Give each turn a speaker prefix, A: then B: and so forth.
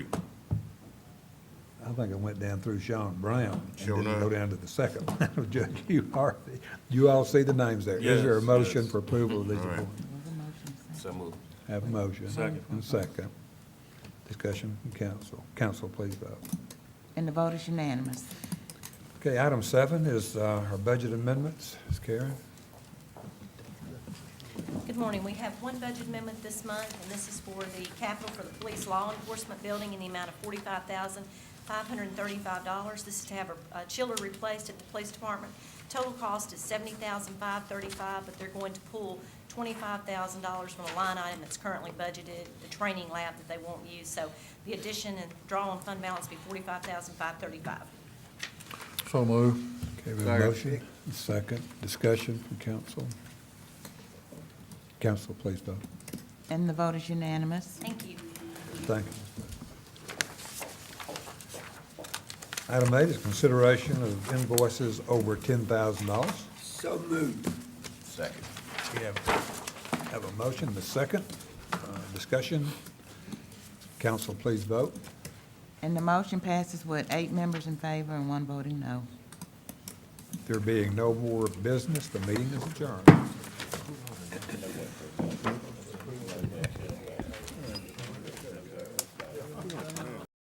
A: I think I went down through Sean Brown. and
B: Sure
A: didn't Go
B: enough.
A: down to the second one, Judge Hugh Harvey. You all see the names there. Is there a
C: Yes,
A: motion
C: yes.
A: for approval of these
B: All right.
A: appointments?
C: So moved.
A: Have a motion.
C: Second.
A: And second. Discussion from council. Council, please vote.
D: And the vote is unanimous.
A: Okay, item seven is uh, our budget amendments. Ms. Karen?
E: Good morning. We have one budget amendment this month, and this is for the capital for the police law enforcement building in the amount of forty-five thousand, five hundred and thirty-five dollars. This is to have a a chiller replaced at the police department. Total cost is seventy thousand, five thirty-five, but they're going to pull twenty-five thousand dollars from a line item that's currently budgeted, the training lab that they won't use. So the addition and draw on fund balance be forty-five thousand, five thirty-five.
B: So move.
A: Okay, we have a motion. Second. Discussion from council. Council, please vote.
D: And the vote is unanimous.
E: Thank you.
A: Thank you. Item eight is consideration of invoices over ten thousand dollars.
F: So moved.
C: Second.
A: We have, have a motion, the second, uh, discussion. Council, please vote.
D: And the motion passes with eight members in favor and one voting no.
A: There being no more business, the meeting is adjourned.